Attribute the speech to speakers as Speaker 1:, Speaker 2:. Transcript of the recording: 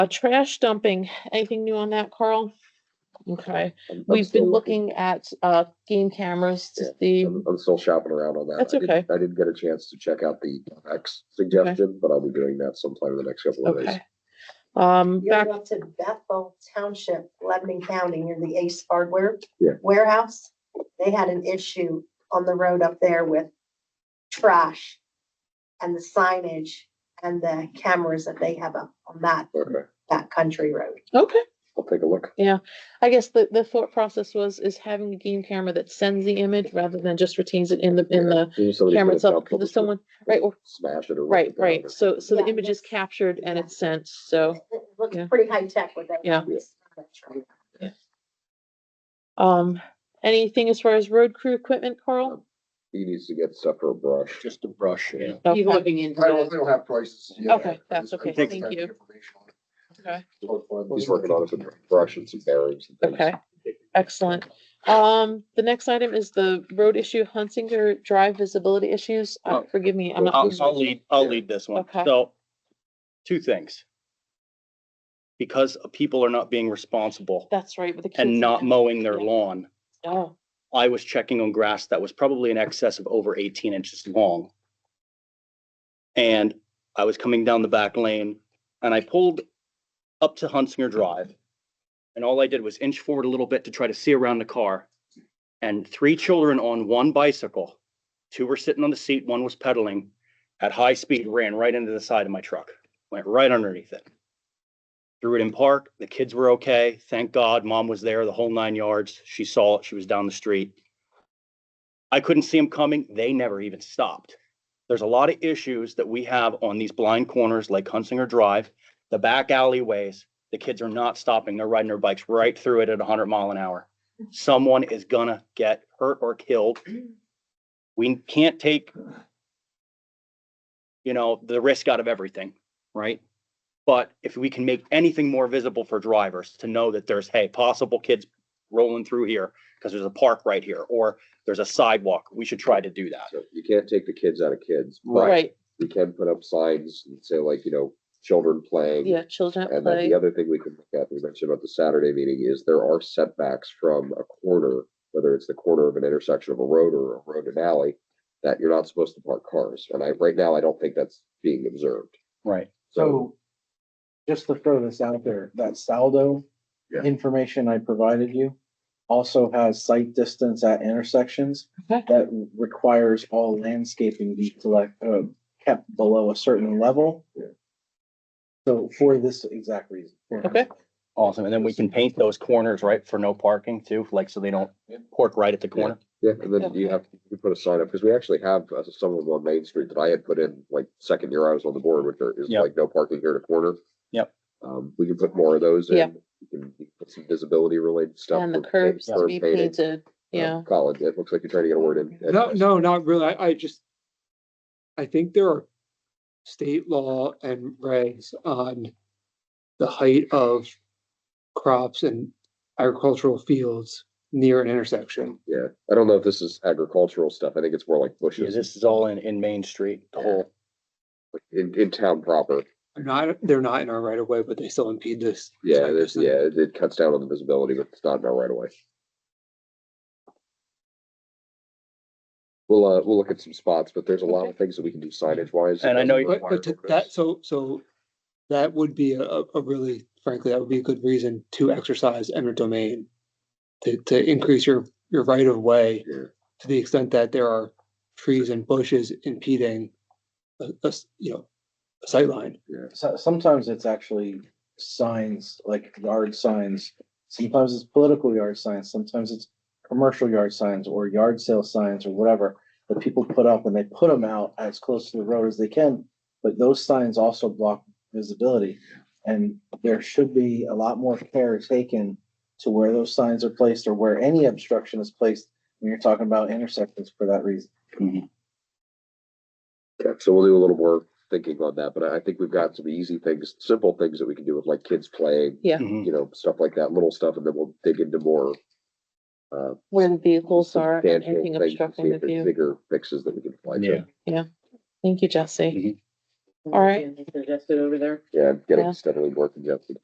Speaker 1: A trash dumping, anything new on that, Carl? Okay, we've been
Speaker 2: still-
Speaker 1: looking at, uh, game cameras to see,
Speaker 2: I'm I'm still shopping around on that.
Speaker 1: That's
Speaker 2: I didn't-
Speaker 1: okay.
Speaker 2: I didn't get a chance to check out the X suggestion, but I'll be doing that sometime in the next couple of days.
Speaker 1: okay. Um,
Speaker 3: You're
Speaker 1: back,
Speaker 3: going to Bethel Township, Lebanon County, near the Ace Hardware.
Speaker 2: Yeah.
Speaker 3: Warehouse, they had an issue on the road up there with trash and the signage and the cameras that they have up on that,
Speaker 2: Okay,
Speaker 3: that country road.
Speaker 1: okay.
Speaker 2: I'll take a look.
Speaker 1: I guess the, the thought process was, is having a game camera that sends the image rather than just retains it in the, in the
Speaker 2: Usually somebody's
Speaker 1: camera
Speaker 2: gonna
Speaker 1: itself,
Speaker 2: dump them,
Speaker 1: because if someone, right, or,
Speaker 2: Smash it or. rip
Speaker 1: right,
Speaker 2: it down or-
Speaker 1: right, so, so the
Speaker 3: Yeah.
Speaker 1: image is captured and it's sent, so.
Speaker 3: It it looks
Speaker 1: Oh, Yeah.
Speaker 3: pretty high tech with that.
Speaker 1: Yeah. Um, anything as far as road crew equipment, Carl?
Speaker 2: He needs to get stuff or a brush.
Speaker 4: Just a brush, yeah.
Speaker 1: Okay,
Speaker 5: He's looking into
Speaker 6: I don't,
Speaker 5: that.
Speaker 6: they don't have prices yet.
Speaker 1: Okay, that's
Speaker 6: I just- I
Speaker 1: okay.
Speaker 6: just
Speaker 1: Thank
Speaker 6: have the
Speaker 1: you.
Speaker 6: information on it.
Speaker 1: okay,
Speaker 2: He's working on it with a brush and some bearings. and things.
Speaker 1: okay, excellent. Um, the next item is the road issue, Hunsinger Drive visibility issues. Uh,
Speaker 4: Oh.
Speaker 1: forgive me, I'm
Speaker 4: I'll,
Speaker 1: not.
Speaker 4: I'll lead, I'll lead this one.
Speaker 1: Okay.
Speaker 4: So, two things. Because people are not being responsible
Speaker 1: That's right, with the kids.
Speaker 4: and not mowing their
Speaker 1: Yeah.
Speaker 4: lawn,
Speaker 1: Oh,
Speaker 4: I was checking on grass that was probably in excess of over eighteen inches long. And I was coming down the back lane and I pulled up to Hunsinger Drive. And all I did was inch forward a little bit to try to see around the car. And three children on one bicycle, two were sitting on the seat, one was pedaling at high speed, ran right into the side of my truck, went right underneath it. Threw it in park. The kids were okay. Thank God. Mom was there the whole nine yards. She saw it. She was down the street. I couldn't see them coming. They never even stopped. There's a lot of issues that we have on these blind corners like Hunsinger Drive, the back alleyways. The kids are not stopping. They're riding their bikes right through it at 100 mile an hour. Someone is gonna get hurt or killed. We can't take, you know, the risk out of everything, right? But if we can make anything more visible for drivers to know that there's, hey, possible kids rolling through here because there's a park right here or there's a sidewalk, we should try to do that.
Speaker 2: So You can't take the kids out of kids, but
Speaker 1: right,
Speaker 2: we can put up signs and say like, you know, children playing.
Speaker 1: yeah, children at
Speaker 2: And then
Speaker 1: play,
Speaker 2: the other thing we can look at, we mentioned about the Saturday meeting, is there are setbacks from a corner, whether it's the corner of an intersection of a road or a road and alley, that you're not supposed to park cars. And I, right now, I don't think that's being observed.
Speaker 4: Right.
Speaker 2: So
Speaker 7: So, just to throw this out there, that saldo
Speaker 2: Yeah.
Speaker 7: information I provided you also has sight distance at intersections
Speaker 1: Okay.
Speaker 7: that requires all landscaping be collect, uh, kept below a certain level.
Speaker 2: Yeah.
Speaker 7: So for this exact reason. for-
Speaker 1: Okay.
Speaker 4: Awesome. And then we can paint those corners, right, for no parking too, like so they don't pork right at the corner.
Speaker 2: Yeah, and then you have, you put a sign up, because we actually have uh, some of them on Main Street that I had put in, like, second year I was on the board, which are, is
Speaker 4: Yep.
Speaker 2: like, no parking here at a corner.
Speaker 4: Yep.
Speaker 2: Um, we can put more of those in.
Speaker 1: Yeah.
Speaker 2: You can you can put some visibility related stuff.
Speaker 1: and the
Speaker 2: with paint-
Speaker 1: curbs to
Speaker 2: curb
Speaker 1: be
Speaker 2: painting.
Speaker 1: painted,
Speaker 2: Um,
Speaker 1: yeah,
Speaker 2: Colin, it looks like you're trying to get a word in.
Speaker 8: No, no, not really. I, I just, I think there are state law and regs on the height of crops and agricultural fields near an intersection.
Speaker 2: Yeah, I don't know if this is agricultural stuff. I think it's more like
Speaker 4: Yeah,
Speaker 2: bushes
Speaker 4: this is all in, in Main Street, the whole,
Speaker 2: like, in, in town proper.
Speaker 8: They're not, they're not in our right of way, but they still impede this.
Speaker 2: Yeah,
Speaker 8: site
Speaker 2: this,
Speaker 8: distance.
Speaker 2: yeah, it- it cuts down on the visibility, but it's not in our right away. We'll, uh, we'll look at some spots, but there's a lot of things that we can do signage wise.
Speaker 4: And I know you-
Speaker 8: But, but to that, so, so that would be a, a a really, frankly, that would be a good reason to exercise eminent domain. To, to increase your, your right of way
Speaker 2: Yeah.
Speaker 8: to the extent that there are trees and bushes impeding a, a s- you know, a sightline.
Speaker 7: So, sometimes it's actually signs, like yard signs, sometimes it's political yard signs, sometimes it's commercial yard signs or yard sale signs or whatever that people put up and they put them out as close to the road as they can, but those signs also block visibility. And there should be a lot more care taken to where those signs are placed or where any obstruction is placed when you're talking about intersections for that reason.
Speaker 2: Okay, so we'll do a little more thinking on that, but I I think we've got some easy things, simple things that we can do with like kids playing,
Speaker 4: Mhm.
Speaker 2: you know, stuff like that, little stuff, and then we'll dig into more. Uh,
Speaker 1: where the vehicles are, and
Speaker 2: substantial
Speaker 1: anything
Speaker 2: things and see
Speaker 1: obstructing the
Speaker 2: if there's
Speaker 1: view.
Speaker 2: Bigger fixes that we can apply to.
Speaker 4: Yeah.
Speaker 1: Thank you, Jesse. All right.
Speaker 5: Congested over there.
Speaker 2: Yeah, getting
Speaker 1: Yeah.
Speaker 2: steadily more congested.